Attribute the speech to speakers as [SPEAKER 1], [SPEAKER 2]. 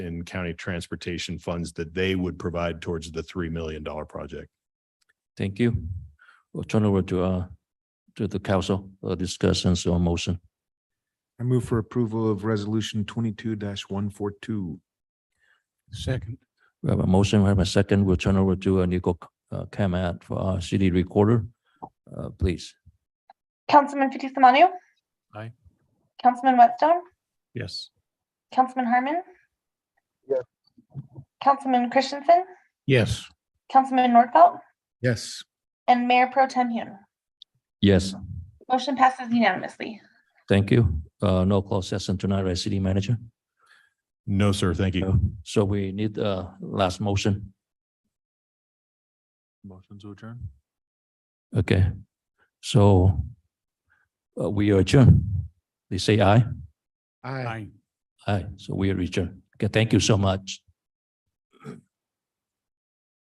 [SPEAKER 1] in county transportation funds that they would provide towards the three million dollar project.
[SPEAKER 2] Thank you. We'll turn over to, uh, to the council, uh, discussions on motion.
[SPEAKER 3] I move for approval of resolution twenty-two one four two.
[SPEAKER 4] Second.
[SPEAKER 2] We have a motion, we have a second. We'll turn over to uh, Nico uh, Kamat for our city recorder. Uh, please.
[SPEAKER 5] Councilman Fitzie Umanu.
[SPEAKER 4] Aye.
[SPEAKER 5] Councilman Whitstone,
[SPEAKER 4] Yes.
[SPEAKER 5] Councilman Harmon.
[SPEAKER 3] Yes.
[SPEAKER 5] Councilman Christensen,
[SPEAKER 4] Yes.
[SPEAKER 5] Councilman Nordfelt,
[SPEAKER 3] Yes.
[SPEAKER 5] and Mayor Pro Tem Hune.
[SPEAKER 2] Yes,
[SPEAKER 5] Motion passes unanimously.
[SPEAKER 2] thank you. Uh, no closed session tonight, right, city manager?
[SPEAKER 1] No, sir. Thank you.
[SPEAKER 2] No. So we need, uh, last motion.
[SPEAKER 4] Motion to adjourn.
[SPEAKER 2] Okay. So uh, we adjourn. They say aye.
[SPEAKER 3] Aye.
[SPEAKER 2] Aye. So we adjourn. Okay, thank you so much.